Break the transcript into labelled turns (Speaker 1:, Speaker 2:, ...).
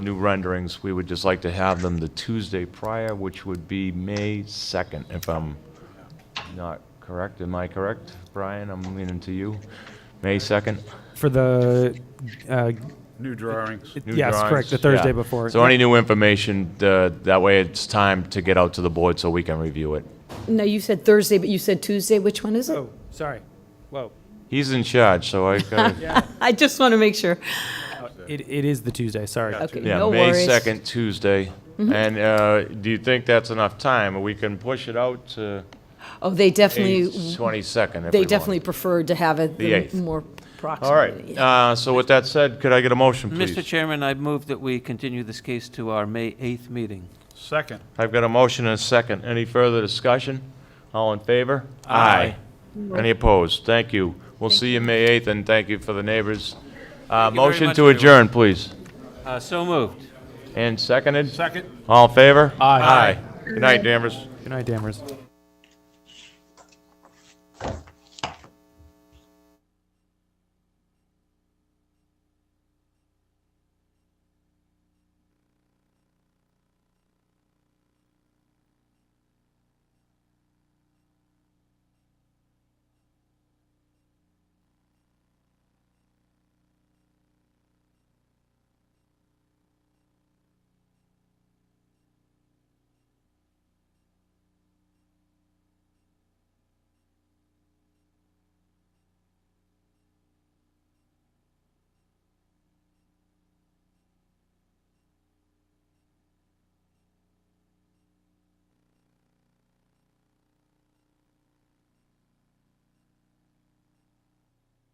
Speaker 1: new renderings, we would just like to have them the Tuesday prior, which would be May 2nd, if I'm not correct. Am I correct, Brian? I'm leaning to you. May 2nd?
Speaker 2: for the, uh,
Speaker 3: New drawings.
Speaker 1: New
Speaker 2: yes, correct,
Speaker 1: drawings?
Speaker 2: the Thursday
Speaker 1: Yeah.
Speaker 2: before.
Speaker 1: So any new information, uh, that way it's time to get out to the board so we can review it.
Speaker 4: No, you said Thursday, but you said Tuesday. Which one is it?
Speaker 2: Oh, sorry. Whoa.
Speaker 1: He's in charge, so I gotta
Speaker 4: I just want to make sure.
Speaker 2: It, it is the Tuesday, sorry.
Speaker 4: Okay,
Speaker 1: Yeah,
Speaker 4: no
Speaker 1: May
Speaker 4: worries. Mm-hmm.
Speaker 1: 2nd, Tuesday. And uh, do you think that's enough time? We can push it out to
Speaker 4: Oh, they
Speaker 1: May
Speaker 4: definitely,
Speaker 1: 22nd if we
Speaker 4: they
Speaker 1: want.
Speaker 4: definitely preferred to have it
Speaker 1: The
Speaker 4: the
Speaker 1: eighth.
Speaker 4: more
Speaker 1: All right,
Speaker 4: proximity.
Speaker 1: uh, so with that said, could I get a motion,
Speaker 5: Mr.
Speaker 1: please?
Speaker 5: Chairman, I move that we continue this case to our May 8th meeting.
Speaker 3: Second.
Speaker 1: I've got a motion and a second. Any further discussion? All in favor?
Speaker 5: Aye.
Speaker 1: Any opposed? Thank you. We'll see you May 8th, and thank you for the neighbors. Uh,
Speaker 5: you very
Speaker 1: Motion
Speaker 5: much,
Speaker 1: to
Speaker 5: everyone.
Speaker 1: adjourn, please.
Speaker 5: Uh, So moved.
Speaker 1: And seconded?
Speaker 3: Second.
Speaker 1: All in favor?
Speaker 2: Aye.
Speaker 1: Aye. Good night, Danvers.
Speaker 2: Good night, Danvers.